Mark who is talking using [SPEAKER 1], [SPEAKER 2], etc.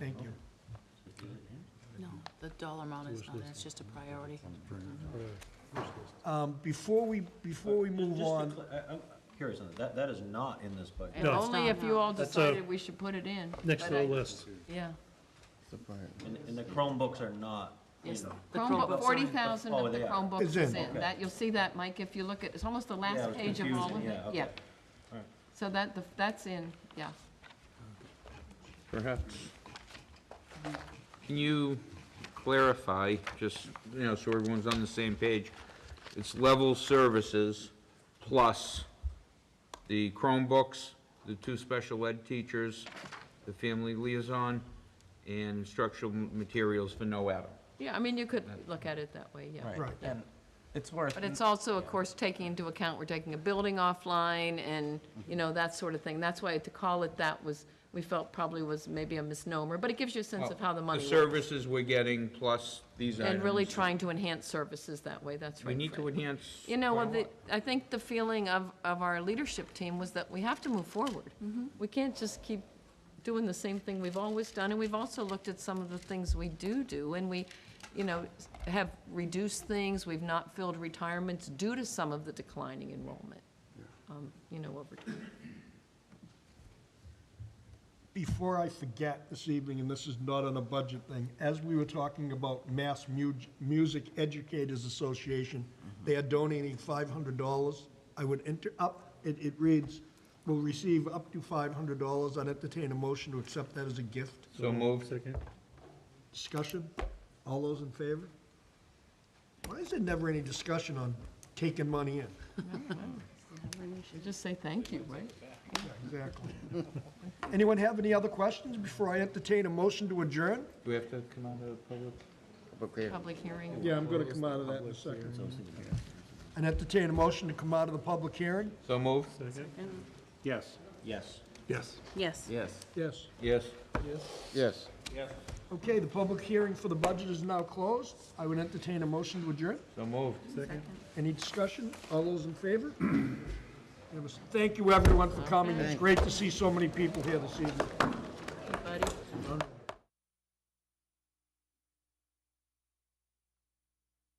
[SPEAKER 1] Thank you.
[SPEAKER 2] No, the dollar amount is not, it's just a priority.
[SPEAKER 1] Um, Before we, before we move on,
[SPEAKER 3] I'm curious on that. that, that uh, is not in this budget.
[SPEAKER 4] And
[SPEAKER 5] No.
[SPEAKER 4] only if you all
[SPEAKER 5] That's a-
[SPEAKER 4] decided we should put it in,
[SPEAKER 5] Next to
[SPEAKER 2] But
[SPEAKER 5] the
[SPEAKER 2] I-
[SPEAKER 5] list.
[SPEAKER 4] yeah.
[SPEAKER 3] And, and the Chromebooks are not, you
[SPEAKER 2] Yes,
[SPEAKER 3] know.
[SPEAKER 2] the Chromebooks
[SPEAKER 4] Chromebook,
[SPEAKER 2] are
[SPEAKER 4] forty
[SPEAKER 2] in.
[SPEAKER 4] thousand
[SPEAKER 3] Oh,
[SPEAKER 4] of the
[SPEAKER 3] they are.
[SPEAKER 4] Chromebooks
[SPEAKER 1] It's
[SPEAKER 4] is
[SPEAKER 1] in.
[SPEAKER 4] in, that, you'll see that, Mike, if you look at, it's almost the
[SPEAKER 3] Yeah,
[SPEAKER 4] last
[SPEAKER 3] it's
[SPEAKER 4] page of all of
[SPEAKER 3] confusing,
[SPEAKER 4] it,
[SPEAKER 3] yeah, okay.
[SPEAKER 4] yeah.
[SPEAKER 3] All right.
[SPEAKER 4] So that, the- that's in, yeah.
[SPEAKER 6] Perhaps. Can you clarify, just, you know, so everyone's on the same page? It's level services plus the Chromebooks, the two special ed teachers, the family liaison, and instructional materials for no Adam.
[SPEAKER 4] Yeah, I mean, you could look at it that way, yeah.
[SPEAKER 1] right,
[SPEAKER 7] And it's worth.
[SPEAKER 4] But it's also, of course, taking into account, we're taking a building offline and, you know, that sort of thing. That's why to call it that was, we felt probably was maybe a misnomer, but it gives you a sense of how the money
[SPEAKER 6] The
[SPEAKER 4] works.
[SPEAKER 6] services we're getting plus these items.
[SPEAKER 4] And really trying to enhance services that way, that's right.
[SPEAKER 6] We need
[SPEAKER 4] Fred.
[SPEAKER 6] to enhance.
[SPEAKER 4] You know, well,
[SPEAKER 6] quite a
[SPEAKER 4] the, I think the feeling of, of our leadership team was that we have to move forward. We can't just keep doing the same thing we've always done, and we've also looked at some of the things we do do, and we, you know, s- have reduced things, we've not filled retirements due to some of the declining enrollment, um, you know, over time.
[SPEAKER 1] before I forget this evening, and this is not on a budget thing, as we were talking about Mass Mu- Music Educators Association, they are donating five hundred dollars. I would enter up, it, it reads, will receive up to five hundred dollars. I'd entertain a motion to accept that as a gift.
[SPEAKER 6] So moved.
[SPEAKER 5] Second.
[SPEAKER 1] Discussion? All those in favor? Why is there never any discussion on taking money in?
[SPEAKER 4] You Just say thank you, right?
[SPEAKER 1] Exactly. Anyone have any other questions before I entertain a motion to adjourn?
[SPEAKER 6] Do we have to come out of public?
[SPEAKER 4] Public hearing.
[SPEAKER 1] Yeah, I'm gonna come out of that in a second. And entertain a motion to come out of the public hearing?
[SPEAKER 6] So moved?
[SPEAKER 5] Second.
[SPEAKER 7] Yes.
[SPEAKER 3] Yes.
[SPEAKER 5] Yes.
[SPEAKER 2] Yes.
[SPEAKER 7] Yes.
[SPEAKER 1] Yes.
[SPEAKER 6] Yes.
[SPEAKER 7] Yes.
[SPEAKER 1] Okay, the public hearing for the budget is now closed. I would entertain a motion to adjourn.
[SPEAKER 6] So moved.
[SPEAKER 5] Second.
[SPEAKER 1] Any discussion? All those in favor? Unanimous. Thank you, everyone, for coming. It's great to see so many people here this evening.